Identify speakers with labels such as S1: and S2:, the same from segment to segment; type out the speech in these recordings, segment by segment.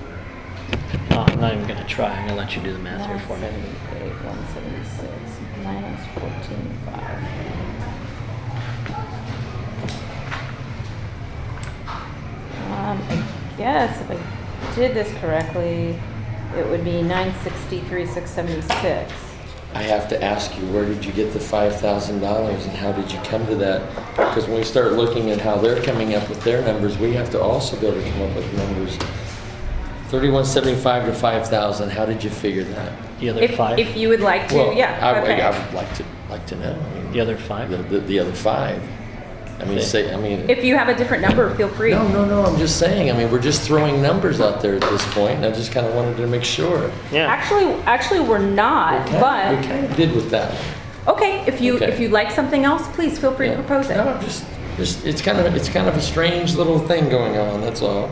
S1: not, Oh, I'm not even gonna try. I'm gonna let you do the
S2: Um,
S1: math here for me.
S2: 978, 176 minus 14,500. Um, I guess if I did this correctly, it would be 963, 676.
S3: I have to ask you, where did you get the $5,000 and how did you come to that? Because when we start looking at how they're coming up with their numbers, we have to also be able to come up with numbers. 3175 to 5,000, how did you figure that?
S1: The other
S2: If,
S1: five?
S2: if you would like to,
S3: Well, I-
S2: yeah,
S3: I-
S2: okay.
S3: I would like to, like to know. I mean,
S1: The other five?
S3: The, the- the other five. I mean,
S1: Okay.
S3: say, I mean.
S2: If you have a different number, feel free.
S3: No, no, no, I'm just saying, I mean, we're just throwing numbers out there at this point, and I just kind of wanted to make sure.
S1: Yeah.
S2: Actually, actually, we're not,
S3: We kind- We
S2: but,
S3: kind of did with that one.
S2: okay, if you,
S3: Okay.
S2: if you like something else, please feel free to
S3: Yeah.
S2: propose it.
S3: No, I'm just, just, it's kind of, it's kind of a strange little thing going on, that's all.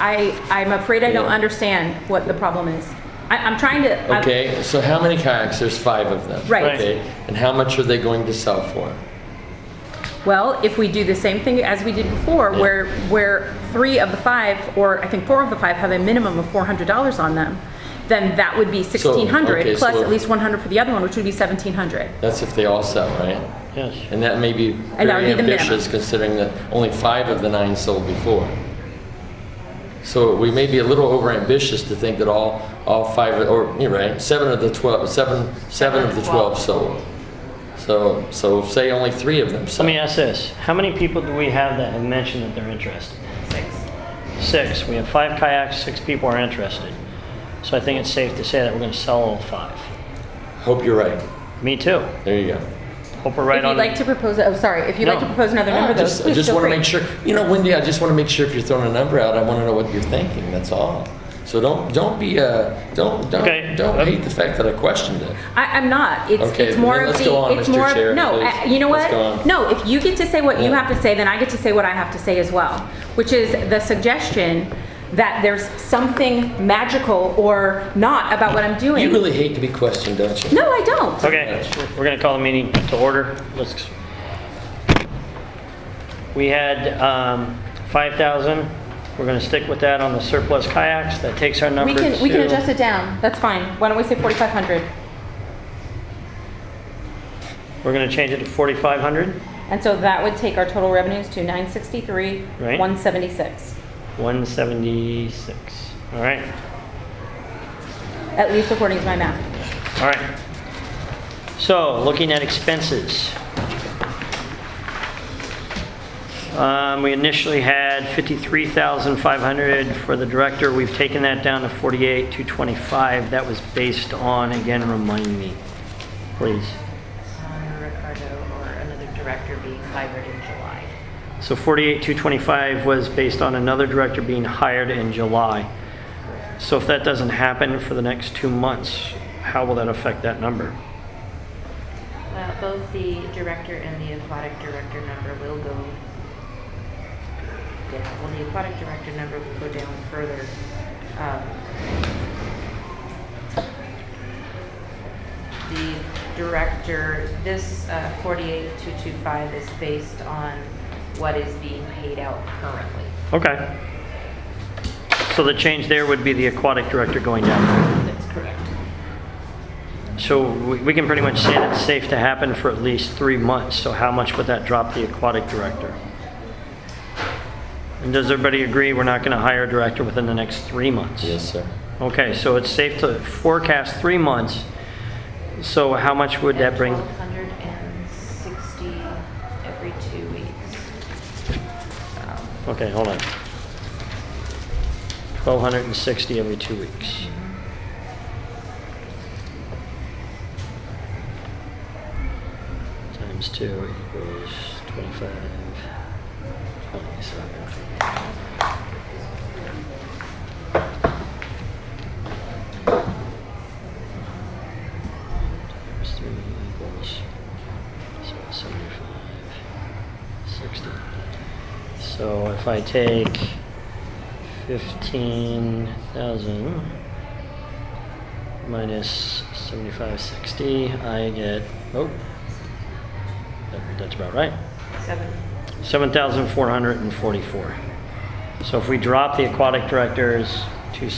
S2: I, I'm afraid I don't
S3: Yeah.
S2: understand what the problem is. I, I'm trying to. I'm-
S3: Okay, so how many kayaks? There's five of them.
S2: Uh, Right. Right.
S3: Okay, and how much are they going to sell for?
S2: Well, if we do the same thing as we did before,
S3: Yeah.
S2: where, where three of the five, or I think four of the five have a minimum of four hundred dollars on them, then that would be sixteen
S3: okay,
S2: hundred,
S3: so
S2: plus
S3: we're-
S2: at least one hundred for the other one, which would be seventeen hundred.
S3: That's if they all sell, right?
S1: Yes.
S3: And that may be
S2: And that would
S3: very
S2: be the minimum.
S3: ambitious considering that only five of the nine sold before. So we may be a little overambitious to think that all, all five, or, you're right, seven of the 12, seven, seven of the 12 sold. So, so say only three of them
S1: Let
S3: sold.
S1: me ask this. How many people do we have that have mentioned that they're interested? Six. We have five kayaks, six people are interested. So I think it's safe to say that we're gonna sell all five.
S3: Hope you're right.
S1: Me too.
S3: There you go.
S1: Hope we're right
S2: If
S1: on.
S2: you'd like to propose, oh, sorry, if you'd like
S1: No.
S2: to propose another number,
S3: I
S2: though,
S3: just, I
S2: please
S3: just
S2: feel
S3: want to
S2: free.
S3: make sure, you know, Wendy, I just want to make sure if you're throwing a number out, I want to know what you're thinking, that's all. So don't, don't be, uh, don't,
S1: Okay.
S3: don't, don't hate the fact that I questioned it.
S2: I, I'm not, it's,
S3: Okay,
S2: it's more
S3: then
S2: of
S3: let's go on,
S2: the, it's
S3: Mr.
S2: more,
S3: Chair,
S2: of- no,
S3: please.
S2: I- you know
S3: Let's go on.
S2: what? No, if you get to say what you
S3: Yeah.
S2: have to say, then I get to say what I have to say as well, which is the suggestion that there's something magical or not about what I'm doing.
S3: You really hate to be questioned, don't you?
S2: No, I don't.
S1: Okay, we're gonna call the meeting to order. Let's. We had, um, five thousand. We're gonna stick with that on the surplus kayaks. That takes our number
S2: We
S1: to.
S2: can, we can adjust it down, that's fine. Why don't we say 4,500?
S1: We're gonna change it to forty-five hundred,
S2: And so that would take our total revenues to 963,
S1: Right.
S2: 176.
S1: one seventy-six. All right,
S2: At least according to my math.
S1: all right. So, looking at expenses. Um, we initially had fifty-three thousand five hundred for the director. We've taken that down to forty-eight, two twenty-five. That was based on, again, remind me, please.
S4: Connor, Ricardo, or another director being hired in July.
S1: So forty-eight, two twenty-five was based on another director being hired in July. So if that doesn't happen for the next two months, how will that affect that number?
S4: Well, Uh, both the director and the aquatic director number will go down. Well, the aquatic director number will go down further. Um, The director, this uh, 48225 is based on what is being paid out currently.
S1: Okay. So the change there would be the aquatic director going down.
S4: That's correct.
S1: So we we can pretty much say that's safe to happen for at least three months. So how much would that drop the aquatic director? And does everybody agree we're not going to hire a director within the next three months?
S3: Yes, sir.
S1: Okay, so it's safe to forecast three months. So how much would that bring?
S4: 1,260 every two weeks. Um,
S1: Okay, hold on. 1,260 every two weeks. Times two equals 25, 27. Times three equals so 75, 60. So if I take fifteen thousand minus seventy-five sixty, I get oh, that, that's about right.
S4: Seven.
S1: Seven thousand four hundred and forty-four. So if we drop the aquatic directors to